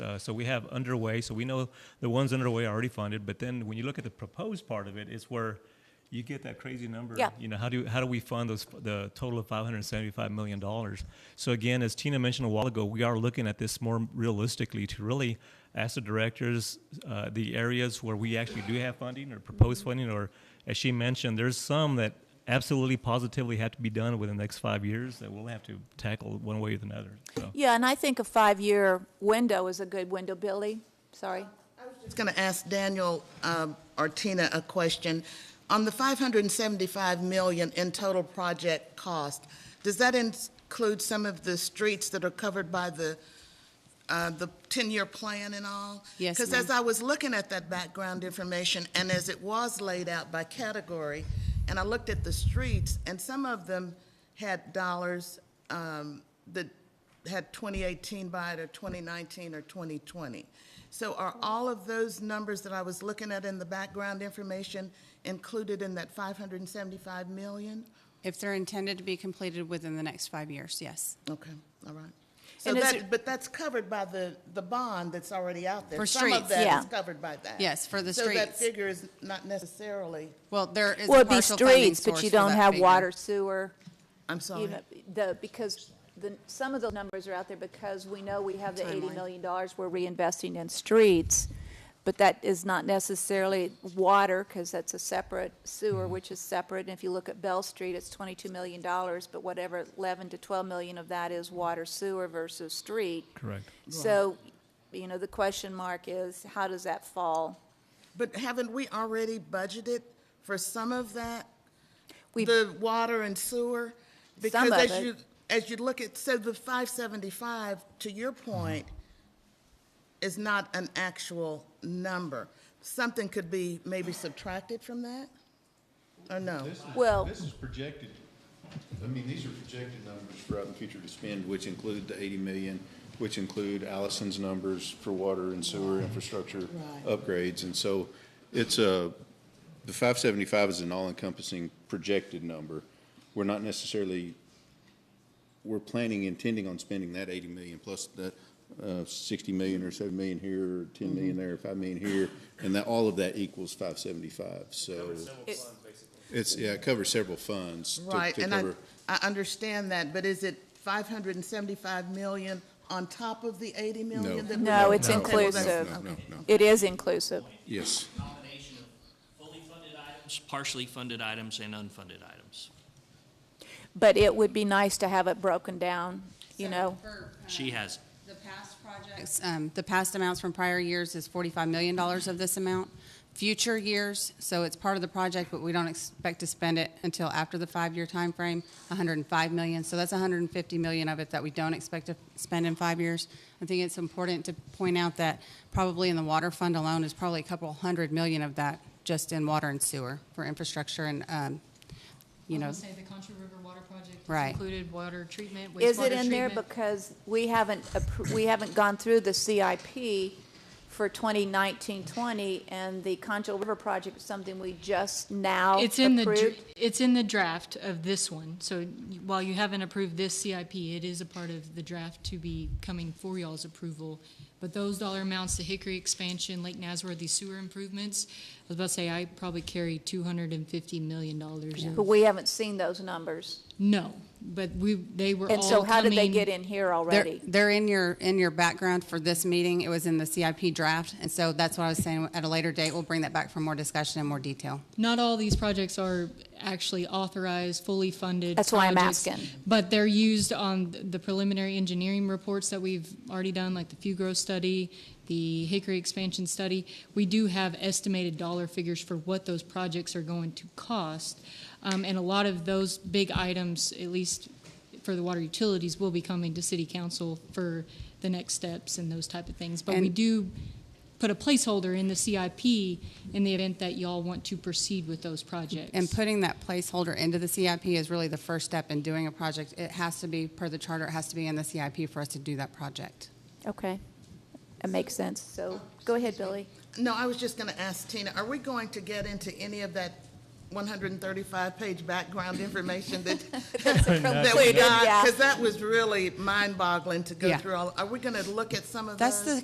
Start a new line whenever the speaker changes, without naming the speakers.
uh, so we have underway. So we know the ones underway are already funded. But then when you look at the proposed part of it, it's where you get that crazy number.
Yeah.
You know, how do how do we fund those the total of five hundred seventy five million dollars? So again, as Tina mentioned a while ago, we are looking at this more realistically to really ask the directors uh, the areas where we actually do have funding or proposed funding, or as she mentioned, there's some that absolutely positively have to be done within the next five years that we'll have to tackle one way or another. So.
Yeah, and I think a five-year window is a good window, Billy, sorry.
Just going to ask Daniel um, or Tina a question. On the 575 million in total project cost, does that include some of the streets that are covered by the, uh, the 10-year plan and all?
Yes,
Because
ma'am.
as I was looking at that background information, and as it was laid out by category, and I looked at the streets, and some of them had dollars um, that had 2018 by it, or 2019, or 2020. So are all of those numbers that I was looking at in the background information included in that 575 million?
If they're intended to be completed within the next five years, yes.
Okay, all right. So
And is
that,
it-
but that's covered by the, the bond that's already out there.
For
Some
streets,
of that
yeah.
is covered by that.
Yes, for the
So that
streets.
figure is not necessarily,
Well, there is
Well,
a
it'd be
partial funding
streets, but
source
you
for
don't
that
have
figure.
water, sewer,
I'm
you
sorry.
know, the, because the, some of the numbers are out there because we know we have the eighty
Timeline.
million dollars we're reinvesting in streets, but that is not necessarily water, because that's a separate sewer,
Mm-hmm.
which is separate, and if you look at Bell Street, it's twenty-two million dollars, but whatever, eleven to twelve million of that is water sewer versus street.
Correct.
So, you know, the question mark is, how does that fall?
But haven't we already budgeted for some of that?
We've-
The water and sewer?
of
Because as
it.
you, as you look at, so the 575, to your point, is not an actual number. Something could be maybe subtracted from that? Or no?
This is-
Well-
This is projected, I mean, these are projected numbers for out in the future to spend, which include the 80 million, which include Allison's numbers for water and sewer infrastructure
Right.
upgrades. And so it's a, the 575 is an all-encompassing projected number. We're not necessarily, we're planning, intending on spending that 80 million plus that uh, 60 million or 7 million here, or 10
Mm-hmm.
million there, 5 million here, and that, all of that equals 575, so. It's, yeah, it covers several funds. to-
Right,
to
and I,
cover-
I understand that, but is it 575 million on top of the 80 million? that we-
No, it's
no,
Okay, well, that's-
inclusive.
No, no,
okay.
no, no.
It is inclusive.
yes.
combination of fully funded items, partially funded items, and unfunded items.
But it would be nice to have it broken down, you know?
uh,
She has
The past projects, um, the past amounts from prior years is forty-five million dollars of this amount. Future years, so it's part of the project, but we don't expect to spend it until after the five-year time frame. hundred and five million, so that's hundred and fifty million of it that we don't expect to spend in five years. I think it's important to point out that probably in the water fund alone is probably a couple hundred million of that just in water and sewer for infrastructure and, um, you
I
know,
was gonna say the Contra River Water Project is
Right.
included water treatment, wastewater
Is
treatment.
it in there because we haven't, appro- we haven't gone through the CIP for 2019-20, and the Concho River project is something we just now
It's in the, dr-
approved?
it's in the draft of this one, so y- while you haven't approved this CIP, it is a part of the draft to be coming for y'all's approval. But those dollar amounts, the Hickory expansion, Lake Nazareth, these sewer improvements, I was about to say, I probably carry two hundred and fifty million dollars.
But we haven't seen those numbers.
No, but we, they were all
And so how did they
coming-
get in here
They're-
already?
They're in your, in your background for this meeting. It was in the CIP draft, and so that's what I was saying, at a later date, we'll bring that back for more discussion and more detail.
not all these projects are actually authorized, fully funded.
That's why I'm
projects,
asking.
But they're used on the preliminary engineering reports that we've already done, like the Fugro study, the Hickory expansion study. We do have estimated dollar figures for what those projects are going to cost. Um, and a lot of those big items, at least for the water utilities, will be coming to city council for the next steps and those type of things. But we
And-
do put a placeholder in the CIP in the event that y'all want to proceed with those projects.
And putting that placeholder into the CIP is really the first step in doing a project. It has to be, per the charter, it has to be in the CIP for us to do that project.
Okay, that makes sense. So, go ahead, Billy.
No, I was just going to ask Tina, are we going to get into any of that 135-page background information that, that we
Included, yeah.
got? Because that was really mind-boggling to go
Yeah.
through all, are we going to look at some of those?
That's the